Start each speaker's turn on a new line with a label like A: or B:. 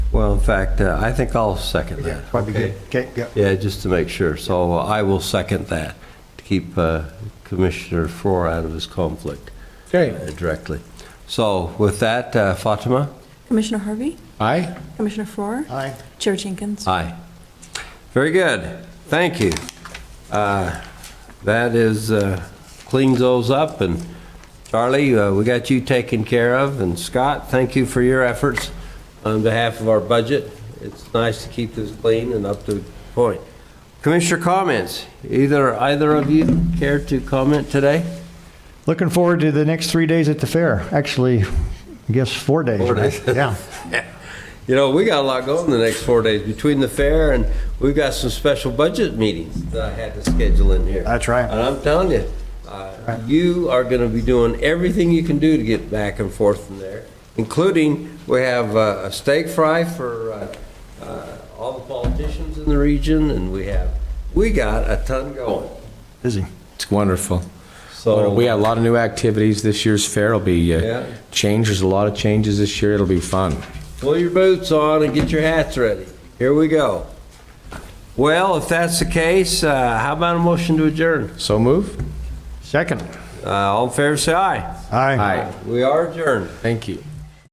A: Well, in fact, uh, I think I'll second that.
B: Probably good. Okay, yeah.
A: Yeah, just to make sure. So uh, I will second that, to keep uh, Commissioner Faur out of his conflict uh,
C: Okay.
A: directly. So with that, uh, Fatima?
D: Commissioner Harvey,
C: Aye?
D: Commissioner Farrar,
E: Uh,
B: Aye.
D: Chair Jenkins.
A: Aye. Very good. Thank you. Uh, That is, uh, cleans those up, and Charlie, uh, we got you taken care of, and Scott, thank you for your efforts on behalf of our budget. It's nice to keep this clean and up to point. Commissioner comments? Either, either of you care to comment today?
E: Looking forward to the next three days at the fair. Actually, I guess four days.
A: Four
E: right?
A: days.
B: Yeah.
A: You know, we got a lot going the next four days, between the fair and we've got some special budget meetings that I had to schedule in here.
E: That's right.
A: And I'm telling you, uh, you are going to be doing everything you can do to get back and forth from there, including, we have uh, a steak fry for uh, uh, all the politicians in the region, and we have, we got a ton going.
E: Busy.
C: It's wonderful.
A: So-
C: We have a lot of new activities. This year's fair will be
A: Oh. Yeah.
C: uh, changed. There's a lot of changes this year. It'll be fun.
A: Pull your boots on and get your hats ready. Here we go. Well, if that's the case, uh, how about a motion to adjourn?
C: So move?
E: Second.
A: Uh, All in favor, say aye.
E: Aye.
C: Aye.
A: We are adjourned.
C: Thank you.